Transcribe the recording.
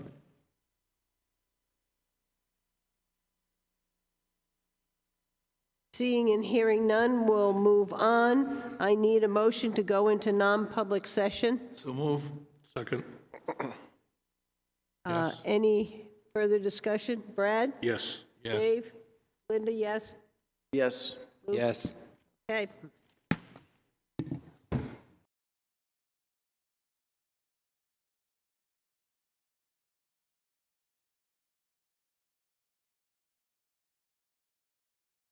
Seeing and hearing none, we'll move on. I need a motion to go into non-public session. So move. Second. Uh, Any further discussion? Brad? Yes. Yes. Dave? Linda, yes? Yes. Yes. Okay.